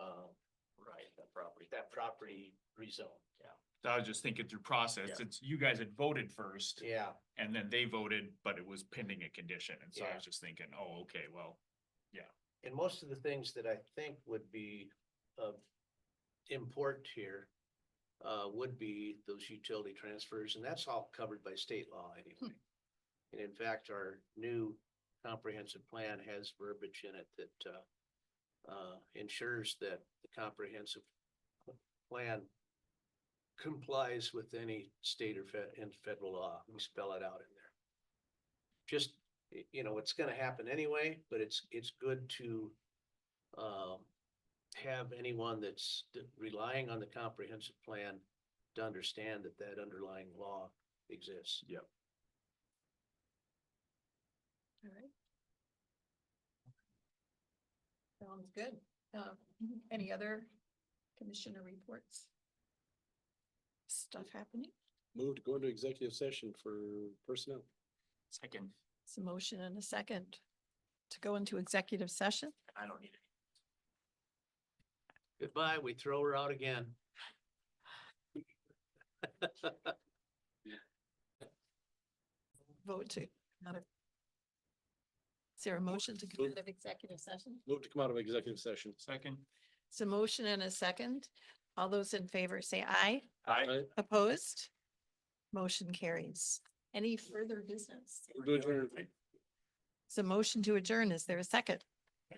get um, that property rezoned, yeah. I was just thinking through process, Yeah. it's, you guys had voted first, Yeah, and then they voted, but it was pending a condition, and so I Yeah. was just thinking, oh, okay, well, and most of the things that I think would be of import here uh, would be those utility transfers, and that's all covered by state law anyway. And in fact, our new comprehensive plan has verbiage in it that uh, uh, ensures that the comprehensive plan complies with any state or fed, and federal law. We spell it out in there. Just y- you know, it's gonna happen anyway, but it's, it's good to um, have anyone that's d- relying on the comprehensive plan to understand that that underlying law exists. Alright. Sounds good. Um, any other commissioner reports? Stuff happening? Move to go into executive session for personnel. second, It's a motion and a second to go into executive session. I don't need it. Goodbye, we throw her out again. Vote to. not a- Is there a motion to come out of executive session? Move to come out of executive session. Second. It's a motion and a second. All those in favor say aye. Aye. Aye. Opposed? Motion carries. Any further business? We're doing adjourn. It's a motion to adjourn. Is there a second?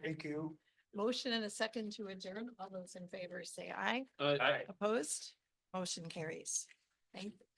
Thank you. Motion and a second to adjourn. All those in favor say aye. Aye. Aye. Opposed? Motion carries. Thank you.